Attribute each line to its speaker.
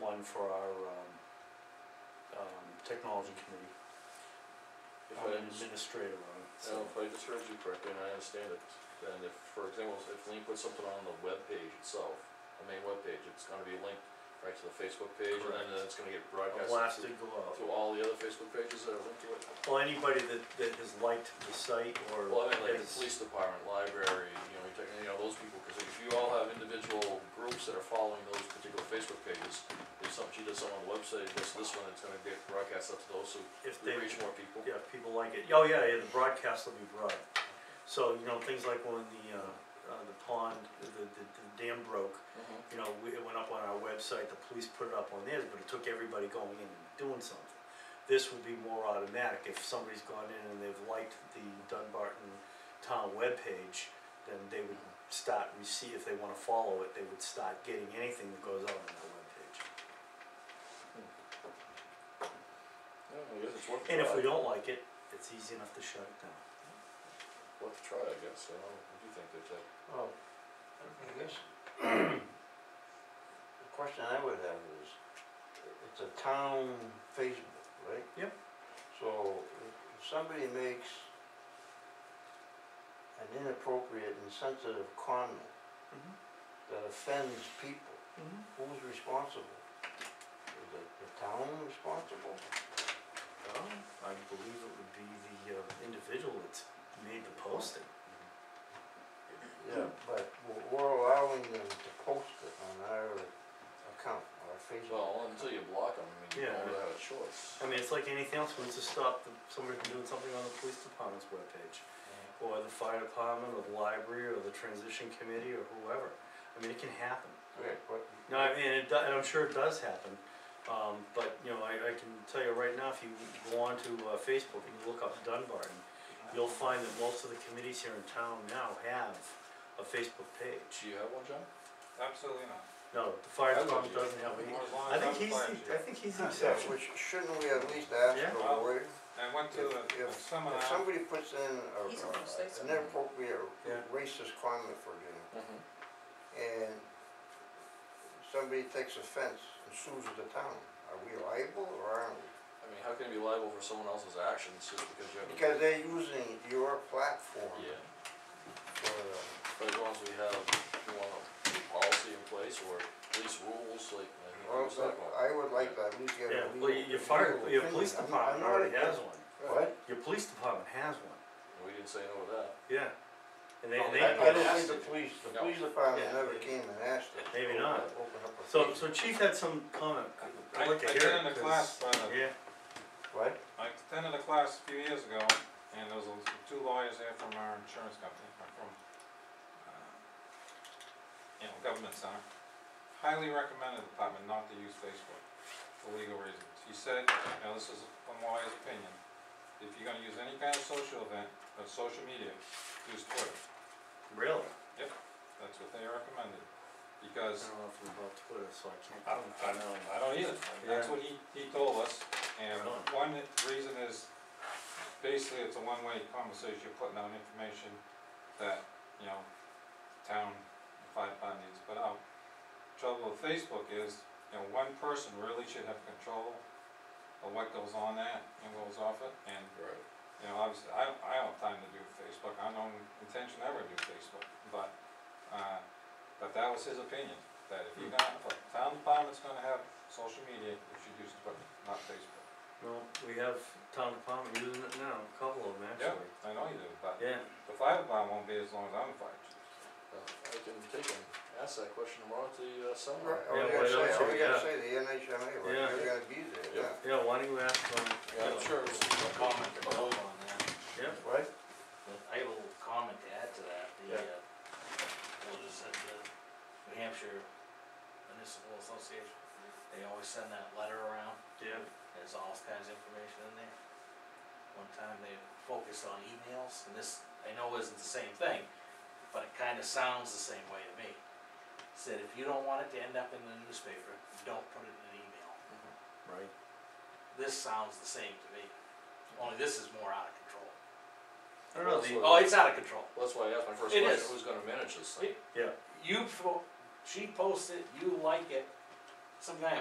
Speaker 1: one for our, um, um, technology committee,
Speaker 2: If
Speaker 1: on
Speaker 2: I,
Speaker 1: an
Speaker 2: just-
Speaker 1: administrator one, so.
Speaker 2: now, if I just heard you correctly, and I understand it, then if, for example, if Lean puts something on the web page itself, the main web page, it's gonna be linked right to the Facebook page, and then
Speaker 1: Correct.
Speaker 2: it's gonna get
Speaker 1: A
Speaker 2: broadcast to,
Speaker 1: blasted glove.
Speaker 2: to all the other Facebook pages that are linked to it.
Speaker 1: Well, anybody that, that has liked the site or.
Speaker 2: Well, I mean, like the
Speaker 1: has-
Speaker 2: police department, library, you know, you take, you know, those people, cause if you all have individual groups that are following those particular Facebook pages, if some, she does something on the website, does this one, it's gonna get broadcast up to those, so
Speaker 1: If
Speaker 2: we
Speaker 1: they,
Speaker 2: reach more people.
Speaker 1: yeah, if people like it, oh, yeah, yeah, the broadcast will be broad. So, you know, things like when the, uh, uh, the pond, the, the, the dam broke,
Speaker 2: Mhm.
Speaker 1: you know, we- it went up on our website, the police put it up on theirs, but it took everybody going in and doing something. This would be more automatic, if somebody's gone in and they've liked the Dunbarton Town webpage, then they
Speaker 2: Mm-hmm.
Speaker 1: would start, we see if they wanna follow it, they would start getting anything that goes out on that webpage.
Speaker 2: Yeah, I guess it's worth a
Speaker 1: And if we
Speaker 2: try.
Speaker 1: don't like it, it's easy enough to shut it down.
Speaker 2: Worth a try, I guess, I don't know, what do you think, there's that,
Speaker 3: Well, I Oh, I guess, the question I would have is, it's a town Facebook, right?
Speaker 1: Yep.
Speaker 3: So, if- if somebody makes an inappropriate, insensitive comment that offends people, who's responsible? Is it the town responsible?
Speaker 1: Well, I believe it would be the uh, individual that's made the posting.
Speaker 3: Yeah. But we're- we're allowing them to post it on our account, our Facebook.
Speaker 2: well, until you block them, I mean, you
Speaker 1: Yeah.
Speaker 2: don't really have a choice.
Speaker 1: I mean, it's like anything else, once you stop the- somebody from doing something on the police department's webpage,
Speaker 2: Mm-hmm.
Speaker 1: or the fire department, or the library, or the transition committee, or whoever. I mean, it can happen.
Speaker 3: Okay, but.
Speaker 1: No, I mean, it do, and I'm sure it does happen, um, but, you know, I, I can tell you right now, if you go on to uh, Facebook and you look up Dunbarton, you'll find that most of the committees here in town now have a Facebook
Speaker 2: Do
Speaker 1: page.
Speaker 2: you have one, John?
Speaker 4: Absolutely not.
Speaker 1: No, the fire
Speaker 2: I would
Speaker 1: department
Speaker 2: use-
Speaker 1: doesn't have any.
Speaker 4: As long
Speaker 1: I
Speaker 4: as
Speaker 1: think
Speaker 4: I'm
Speaker 1: he's,
Speaker 4: playing.
Speaker 1: the- I think he's the
Speaker 3: Yeah,
Speaker 1: exception.
Speaker 3: which shouldn't we at least ask
Speaker 1: Yeah.
Speaker 3: for a waiver?
Speaker 4: I went to
Speaker 3: If,
Speaker 4: a- a
Speaker 3: if,
Speaker 4: seminar.
Speaker 3: if somebody puts in a,
Speaker 5: He's gonna say
Speaker 3: an
Speaker 5: something.
Speaker 3: inappropriate
Speaker 4: Yeah.
Speaker 3: racist comment, for example,
Speaker 2: Mm-hmm.
Speaker 3: and somebody takes offense and sues the town, are we liable or aren't we?
Speaker 2: I mean, how can you be liable for someone else's actions just because you have a?
Speaker 3: Because they're using your platform
Speaker 2: Yeah.
Speaker 3: for,
Speaker 2: But as long as we have, you know, a policy in place or at least rules, like, I think it
Speaker 3: well,
Speaker 2: was that one.
Speaker 3: I would like to at least get
Speaker 1: Yeah,
Speaker 3: a legal,
Speaker 1: well, your- your fire,
Speaker 3: legal
Speaker 1: your
Speaker 3: opinion.
Speaker 1: police
Speaker 3: I'm- I'm
Speaker 1: department
Speaker 3: not
Speaker 1: already
Speaker 3: against-
Speaker 1: has one.
Speaker 3: What?
Speaker 1: Your police department has one,
Speaker 2: And we didn't say no to that.
Speaker 1: yeah. And they,
Speaker 2: No,
Speaker 1: they,
Speaker 3: I, I don't
Speaker 2: asked
Speaker 3: think the
Speaker 2: it.
Speaker 3: police, the
Speaker 2: No.
Speaker 3: police department
Speaker 1: Yeah.
Speaker 3: never came and asked us. to
Speaker 1: Maybe
Speaker 3: open-
Speaker 1: not.
Speaker 3: Open up a.
Speaker 1: so,
Speaker 3: case.
Speaker 1: so chief had some comment,
Speaker 4: I,
Speaker 1: I'd
Speaker 4: I
Speaker 1: like to hear it.
Speaker 4: attended a
Speaker 1: 'cause-
Speaker 4: class, uh,
Speaker 1: Yeah,
Speaker 3: What?
Speaker 4: I attended a class a few years ago, and there was a- two lawyers there from our insurance company, uh, from, uh, you know, government center. Highly recommended the department not to use Facebook for legal reasons. He said, now this is from lawyer's opinion, if you're gonna use any kind of social event, or social media, use Twitter.
Speaker 1: really?
Speaker 4: That's what they recommended,
Speaker 1: I
Speaker 4: because
Speaker 1: don't know if I'm about Twitter, so I
Speaker 4: I
Speaker 1: can't.
Speaker 4: don't, I don't, I don't either, that's what he, he told us, and
Speaker 1: Right.
Speaker 4: one reason is, basically, it's a one-way conversation, you're putting out information that, you know, town, the five bond needs, but, um, trouble with Facebook is, you know, one person really should have control of what goes on that and goes off it, and
Speaker 2: Right.
Speaker 4: you know, obviously, I don't, I don't have time to do Facebook, I don't intention ever to do Facebook, but, uh, but that was his opinion, that if you're gonna, if a town department's gonna have social media, you should use Twitter, not Facebook.
Speaker 1: No, we have town department using it now, a couple of them
Speaker 4: Yeah,
Speaker 1: actually.
Speaker 4: I know you do, but
Speaker 1: Yeah,
Speaker 4: the fire department won't be as long as I'm invited.
Speaker 2: Well, I can take and ask that question tomorrow at the uh,
Speaker 3: Right,
Speaker 2: seminar.
Speaker 3: all
Speaker 1: Yeah,
Speaker 3: you
Speaker 1: why
Speaker 3: Oh, gotta say,
Speaker 1: don't
Speaker 3: all
Speaker 1: you?
Speaker 3: you gotta
Speaker 1: Yeah.
Speaker 3: say, the NHMA, right,
Speaker 1: Yeah.
Speaker 3: you're gonna be there,
Speaker 2: Yeah.
Speaker 3: yeah.
Speaker 1: yeah, why don't you ask them,
Speaker 2: Yeah, I'm sure it's a comment.
Speaker 6: Hold on, yeah.
Speaker 1: yeah,
Speaker 3: What?
Speaker 6: I have a little comment to add to that, the,
Speaker 2: Yeah.
Speaker 6: uh, what is it, the New Hampshire Municipal Association, they always send that letter around,
Speaker 1: yeah,
Speaker 6: there's all kinds of information in there. One time they focused on emails, and this, I know isn't the same thing, but it kinda sounds the same way to me. Said if you don't want it to end up in the newspaper, don't put it in an email.
Speaker 1: right.
Speaker 6: This sounds the same to me, only this is more out of control.
Speaker 1: I don't know, the-
Speaker 2: Well,
Speaker 6: Oh, it's out of control.
Speaker 2: Well, That's why I asked my first
Speaker 6: It
Speaker 2: question,
Speaker 6: is.
Speaker 2: who's gonna manage this thing?
Speaker 1: yeah.
Speaker 6: you, po- she posts it, you like it, some guy